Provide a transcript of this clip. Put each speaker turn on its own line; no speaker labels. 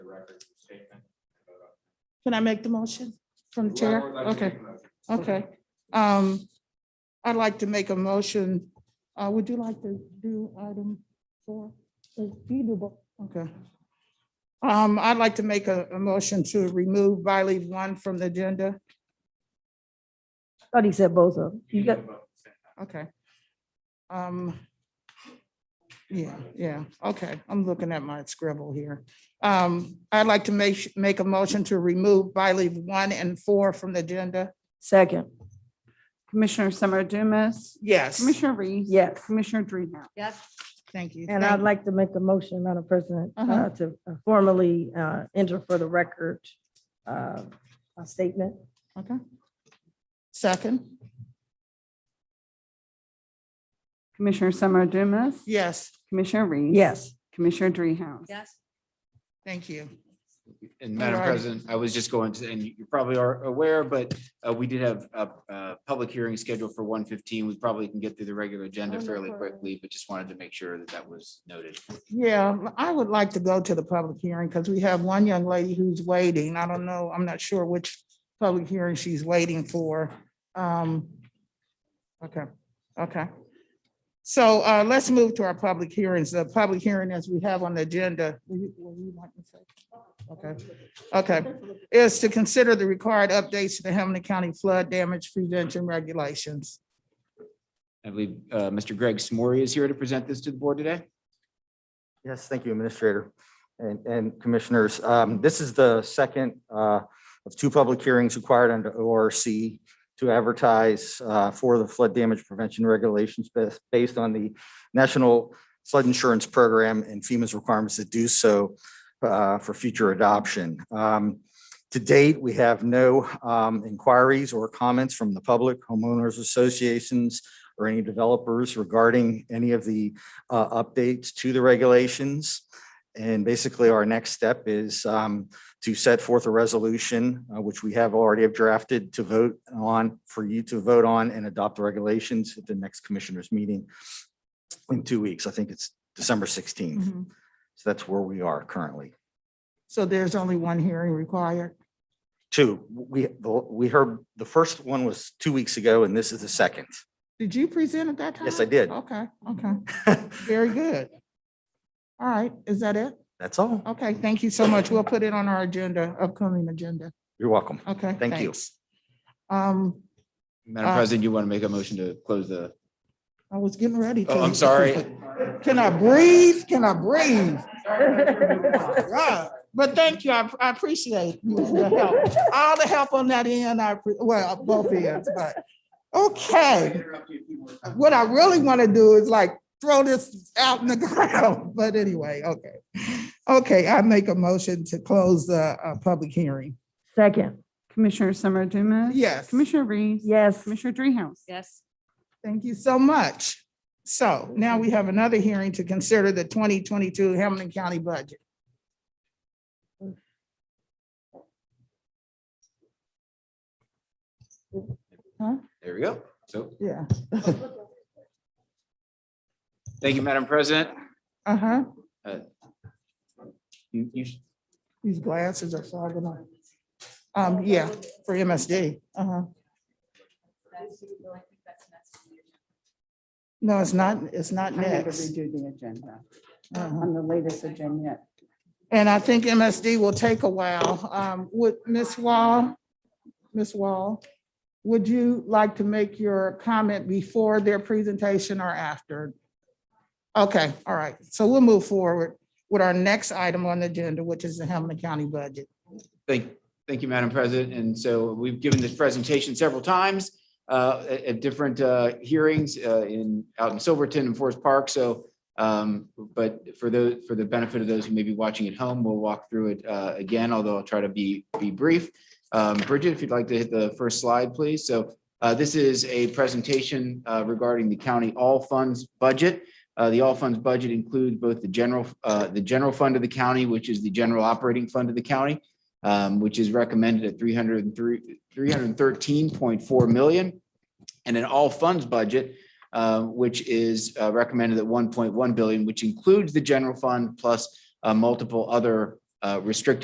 record the statement.
Can I make the motion from the chair?
Whoever would like to
Okay,
make a motion.
okay. Um, I'd like to make a motion. Uh, would you like to do item four? Uh, you do both. Okay. Um, I'd like to make a, a motion to remove by leave one from the agenda.
Thought he said both of them. You
You
got,
can vote.
Okay. Um. Yeah, yeah, okay, I'm looking at my scribble here. Um, I'd like to make, make a motion to remove by leave one and four from the agenda.
second,
Commissioner Summer Dumas,
Yes,
Commissioner Reese.
yes.
Commissioner Dreehouse.
thank you.
And
Thank-
I'd like to make a motion, Madam President,
Uh-huh.
uh, to formally uh, enter for the record uh, a statement.
Okay. Second,
Commissioner Summer Dumas,
yes,
Commissioner Reese.
Yes,
Commissioner Dreehouse.
Yes.
thank you.
And Madam
Alrighty.
President, I was just going to, and you probably are aware, but uh, we did have a, a public hearing scheduled for 1:15. We probably can get through the regular
Oh,
agenda fairly quickly, but just wanted to make sure that that was noted.
Yeah, I would like to go to the public hearing because we have one young lady who's waiting. I don't know, I'm not sure which public hearing she's waiting for. Um, okay, okay. So uh, let's move to our public hearings. The public hearing as we have on the agenda. will you- will you like to say? Okay, okay, is to consider the required updates to the Hamilton County flood damage prevention regulations.
I believe uh, Mr. Greg Smory is here to present this to the board today.
Yes, thank you, Administrator and- and Commissioners. Um, This is the second uh, of two public hearings required under ORC to advertise uh, for the flood damage prevention regulations bas- based on the National Flood Insurance Program and FEMA's requirements to do so uh, for future adoption. Um, To date, we have no um, inquiries or comments from the public, homeowners associations, or any developers regarding any of the uh, updates to the regulations. And basically, our next step is um, to set forth a resolution, uh, which we have already have drafted to vote on, for you to vote on and adopt the regulations at the next commissioners meeting in two weeks. I think it's December
Mm-hmm.
16th. So that's where we are currently.
So there's only one hearing required.
Two, we, we heard, the first one was two weeks ago, and this is the second.
Did you present at that time?
Yes, I did.
Okay, okay. Very good. All right, is that it?
That's all.
Okay, thank you so much. We'll put it on our agenda, upcoming agenda.
You're welcome.
Okay.
Thank you.
thanks. Um,
Madam
Uh,
President, you want to make a motion to close the,
I was getting ready. to.
oh, I'm sorry.
Can I breathe? Can I breathe? Right. But thank you. I, I appreciate the help. All the help on that end, I, appre- well, both ends, but, okay.
Interrupt you if you want.
what I really want to do is like throw this out in the ground, but anyway, okay. Okay, I make a motion to close the uh, public hearing.
second,
Commissioner Summer Dumas.
Yes.
Commissioner Reese.
yes.
Commissioner Dreehouse.
Yes.
Thank you so much. So now we have another hearing to consider the twenty twenty-two Hamilton County budget.
There we go. So,
Yeah.
thank you, Madam President.
Uh-huh.
You, you,
These glasses are fogging up. Um, yeah, for MSD. Uh-huh. No, it's not, it's not next.
the agenda
Uh-huh.
the latest agenda.
And I think MSD will take a while. Um, would, Ms. Wall, Ms. Wall, would you like to make your comment before their presentation or after? Okay, all right. So we'll move forward with our next item on the agenda, which is the Hamilton County budget.
Thank, thank you, Madam President. And so we've given this presentation several times uh, at at different uh, hearings uh, in, out in Silverton and Forest Park. So, um, but for the, for the benefit of those who may be watching at home, we'll walk through it uh, again, although I'll try to be, be brief. Um, Bridget, if you'd like to hit the first slide, please. So uh, this is a presentation uh, regarding the county all funds budget. Uh, The all funds budget includes both the general, uh, the general fund of the county, which is the general operating fund of the county, um, which is recommended at 303 313.4 million. And an all funds budget, uh, which is uh, recommended at 1.1 billion, which includes the general fund plus uh, multiple other uh, restricted